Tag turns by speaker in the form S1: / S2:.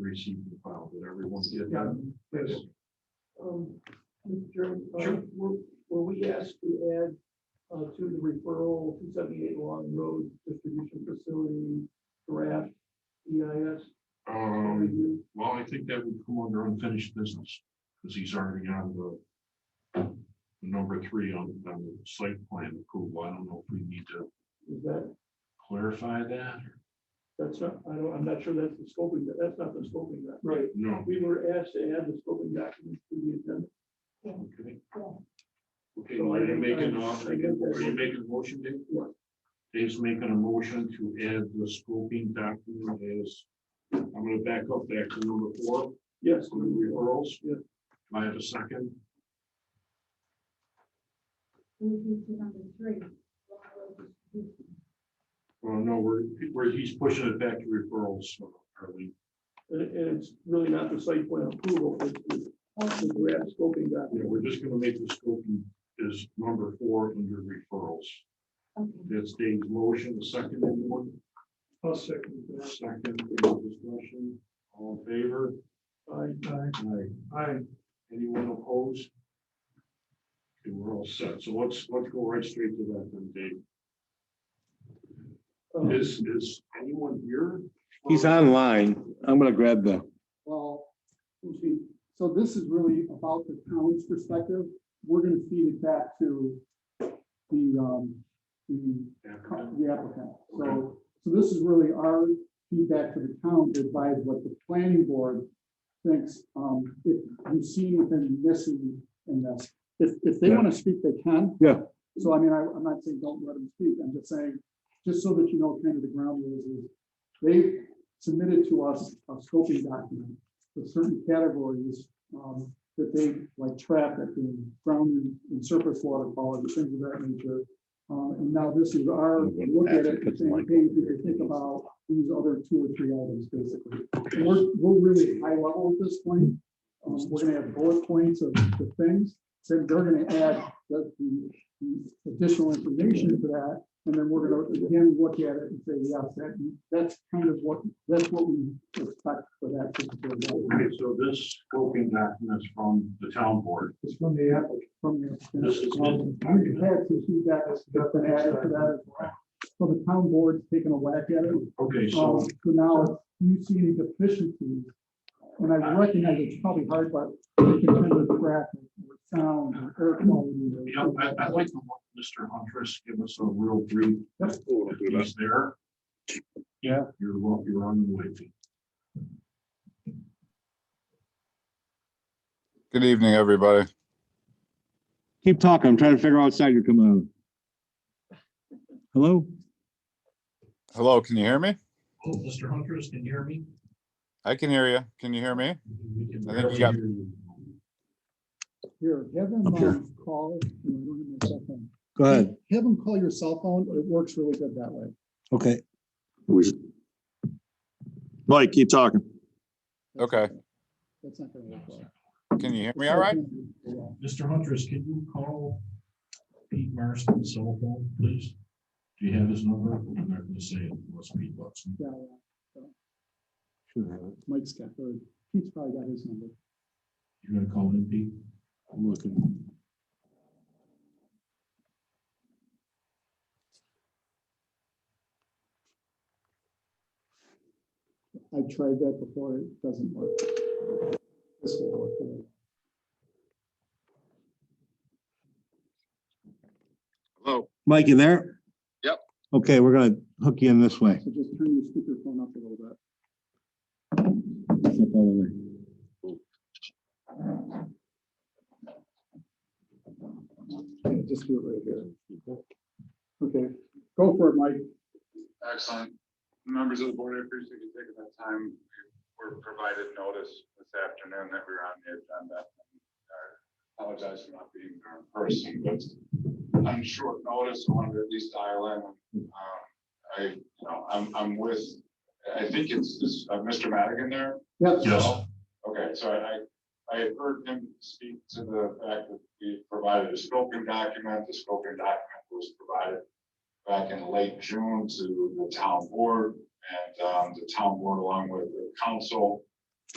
S1: receive the file, that everyone's
S2: Yeah,
S1: getting.
S2: yes. Um, Mr. Chairman, uh, were, were we asked to add, uh, to the referral, two seventy-eight Long Road Distribution Facility draft EIS
S1: Um,
S2: review?
S1: well, I think that would come under unfinished business, because he's already on the number three on, on the site plan approval. I don't know if we need to
S2: Is that,
S1: clarify that. or-
S2: that's not, I don't, I'm not sure that's the scoping, that's not the scoping document. Right.
S1: No,
S2: We were asked to add the scoping document to the agenda.
S1: okay. Okay,
S2: So I
S1: are you
S2: think
S1: making,
S2: I-
S1: a-
S2: I think that's-
S1: are you making a motion, Dave?
S2: What?
S1: Dave's making a motion to add the scoping document as, I'm gonna back up back to number four.
S2: Yes,
S1: So the referrals,
S2: Yeah.
S1: do I have a second?
S3: Moving to number three. lateral distribution.
S1: Well, no, we're, we're, he's pushing it back to referrals, so, Arlene.
S2: and, and it's really not the site plan approval, it's the, the draft scoping document.
S1: Yeah, we're just gonna make the scoping is number four under referrals.
S3: Okay.
S1: That's Dave's motion, the second anyone,
S2: I'll second
S1: second, any discussion, all in favor?
S2: Aye.
S1: Aye.
S2: Aye.
S1: Anyone opposed? Okay, we're all set. So let's, let's go right straight to that then, Dave.
S2: Um,
S1: Is, is anyone here?
S4: He's online. I'm gonna grab the,
S5: Well, you see, so this is really about the town's perspective. We're gonna feed it back to the, um, the, co- the applicant. So, so this is really our feedback to the town to advise what the planning board thinks, um, if you've seen within this and and this. If, if they wanna speak, they can.
S4: Yeah.
S5: So I mean, I, I'm not saying don't let them speak. I'm just saying, just so that you know kind of the ground rules is they submitted to us a scoping document with certain categories um, that they, like traffic and ground and- and surface water quality, things of that nature. Um, And now this is our, look at it, and saying, hey, we could think about these other two or three items, basically. And We're, we're really high level at this point. Um, We're gonna have bullet points of the things, then they're gonna add the the- the additional information to that. And then we're gonna again look at it and say, yes, that, that's kind of what, that's what we expect for that particular. document."
S1: Okay, so this scoping document is from the town board.
S5: It's from the applicant, from the.
S1: This is-
S5: Um, We've had some feedback that's been added to that as well. So the town board's taken a whack at it.
S1: Okay,
S5: Um,
S1: so,
S5: So now, if you see any deficiencies, and I recognize it's probably hard, but in terms of graphic, or sound, or air quality. or-
S1: yeah, I, I'd like to want Mr. Huntress give us a real brief. If he's there.
S4: Yeah.
S1: You're, wel- you're on the way.
S6: Good evening, everybody.
S4: keep talking. I'm trying to figure out what side you're coming on. Hello?
S6: Hello, can you hear me?
S1: Oh, Mr. Huntress, can you hear me?
S6: I can hear you. Can you hear me?
S1: We can
S6: I think
S1: barely
S6: you got-
S1: hear you.
S5: Here, have them
S4: Up here.
S5: um, call. no, I don't have my cell phone.
S4: Go ahead.
S5: Have them call your cell phone. It works really good that way.
S4: Okay. Mike, keep talking.
S5: That's
S6: Okay.
S5: That's not gonna work well.
S6: Can you hear me all right?
S5: Yeah.
S1: Mr. Huntress, can you call Pete Marston's cell phone, please? Do you have his number? I'm not gonna say it, it must be Watson.
S5: Yeah, yeah. Mike's got, or Pete's probably got his number.
S1: You're gonna call him, Pete?
S4: I'm looking.
S5: I tried that before. It doesn't work. This will work. better.
S6: Hello.
S4: Mike, you there?
S6: Yep.
S4: Okay, we're gonna hook you in this way.
S5: So just turn your speakerphone up a little bit.
S4: Step out of the way.
S5: Okay, Just do it right here. Okay, go for it, Mike.
S7: Excellent. Members of the board, I appreciate you taking that time. We were provided notice this afternoon that we were on the agenda. I Apologize for not being there in person, but on short notice, I wanted to at least dial in. Um, I, you know, I'm, I'm with, I think it's, is uh, Mr. Madigan there?
S5: Yep.
S1: Yes.
S7: Okay, so I, I had heard him speak to the fact that we provided a scoping document, the scoping document was provided back in late June to the town board, and um, the town board along with the council